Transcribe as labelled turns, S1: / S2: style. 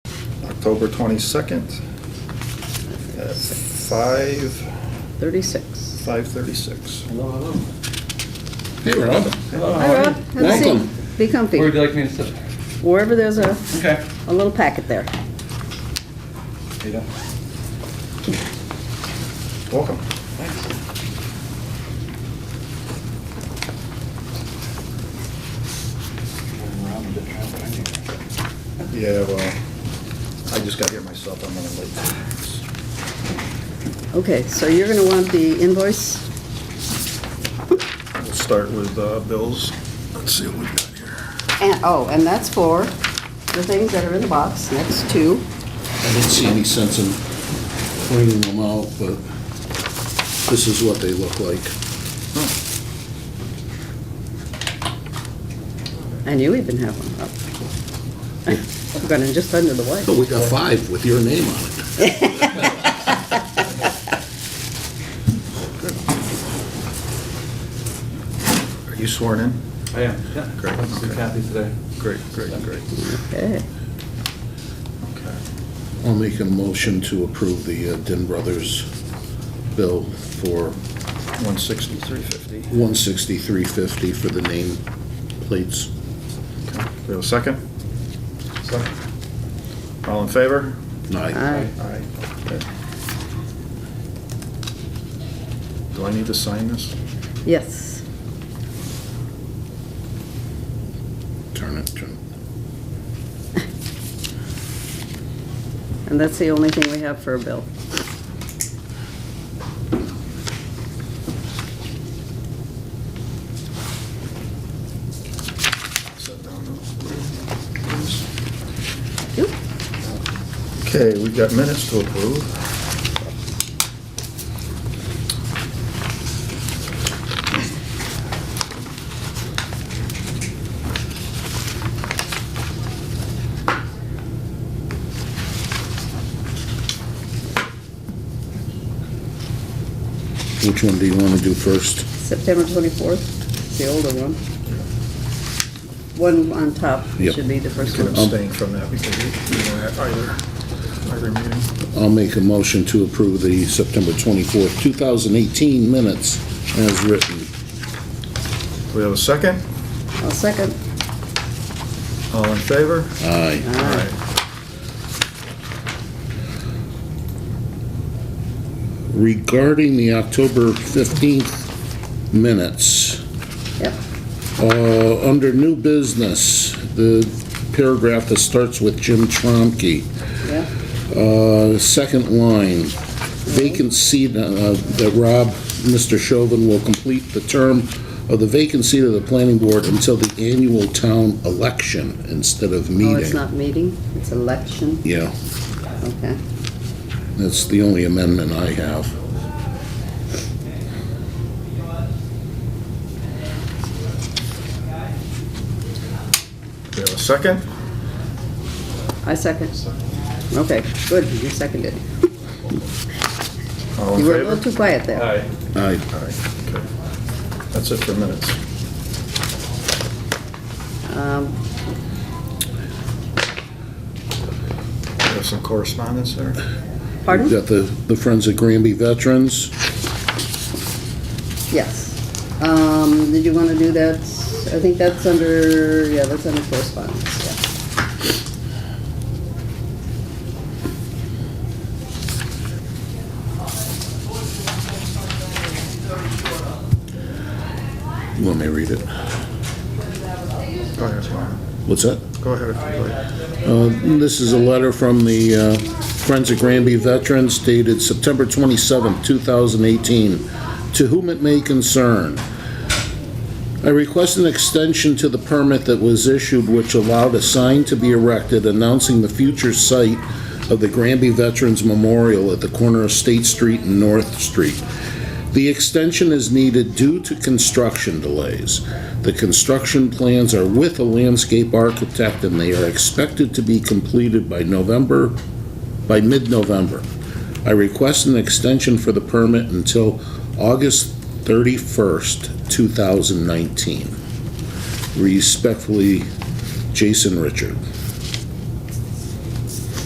S1: October 22nd at 5,
S2: 36.
S1: 5:36.
S3: Hello, hello.
S4: Hey, Rob.
S3: Hello,
S2: Hi, Rob. Have a seat.
S4: Welcome.
S2: Be
S3: Where would
S2: comfy.
S3: you like me to sit?
S2: Wherever there's a,
S3: Okay.
S2: a little packet there.
S3: Ada.
S1: Welcome. Yeah, well, I just got here myself, I'm running late.
S2: Okay, so you're gonna want the invoice?
S1: We'll start with uh, bills. Let's see what we got here.
S2: And, oh, and that's for the things that are in the box, next two.
S4: I didn't see any sense in cleaning them out, but this is what they look like.
S2: I knew even have one up. I'm gonna just under the
S4: But
S2: wire.
S4: we got five with your name on it.
S1: Are you sworn in?
S3: I am, yeah.
S1: Great,
S3: Let's do
S1: okay.
S3: Kathy today.
S1: Great, great, great.
S2: Okay.
S1: Okay.
S4: I'll make a motion to approve the uh, Din Brothers bill for
S1: 163.50.
S4: one sixty-three fifty for the name plates.
S1: Okay. Do we have a second? Second. All in favor?
S4: Aye.
S2: Aye.
S1: Aye. Do I need to sign this?
S2: Yes.
S4: Turn it, turn it.
S2: And that's the only thing we have for a bill.
S1: Set down those.
S2: Yep.
S1: Okay, we've got minutes to approve.
S4: Which one do you want to do first?
S2: September 24th, the older one. One on top
S4: Yep.
S2: should be the
S1: You
S2: first
S1: can
S2: one.
S1: abstain from that because you you were at either, either meeting.
S4: I'll make a motion to approve the September twenty-fourth, two thousand eighteen minutes as written.
S1: Do we have a second?
S2: I'll second.
S1: All in favor?
S4: Aye.
S1: Aye.
S4: regarding the October 15th minutes,
S2: Yep.
S4: uh, under new business, the paragraph that starts with Jim Tromke,
S2: Yeah.
S4: uh, second line, vacant seat, uh, that Rob, Mr. Chauvin will complete the term of the vacant seat of the planning board until the annual town election instead of meeting.
S2: Oh, it's not meeting, it's election.
S4: Yeah,
S2: Okay.
S4: that's the only amendment I have.
S1: Do we have a second?
S2: I second. Okay, good, you seconded.
S1: All in
S2: You were a little
S1: favor?
S2: too quiet there.
S3: Aye.
S4: Aye.
S1: Aye, okay. That's it for minutes.
S2: Um,
S1: We have some correspondence there.
S4: We've
S2: Pardon?
S4: got the the Friends of Granby Veterans.
S2: Yes. Um, Did you want to do that? I think that's under, yeah, that's under correspondence,
S4: Let me read it.
S1: Go ahead, Lauren.
S4: What's that?
S1: Go ahead. go ahead.
S4: Uh, This is a letter from the uh, Friends of Granby Veterans dated September 27, 2018. To whom it may concern, I request an extension to the permit that was issued which allowed a sign to be erected announcing the future site of the Granby Veterans Memorial at the corner of State Street and North Street. The extension is needed due to construction delays. The construction plans are with a landscape architect, and they are expected to be completed by November, by mid-November. I request an extension for the permit until August 31st, 2019. Respectfully, Jason Richard.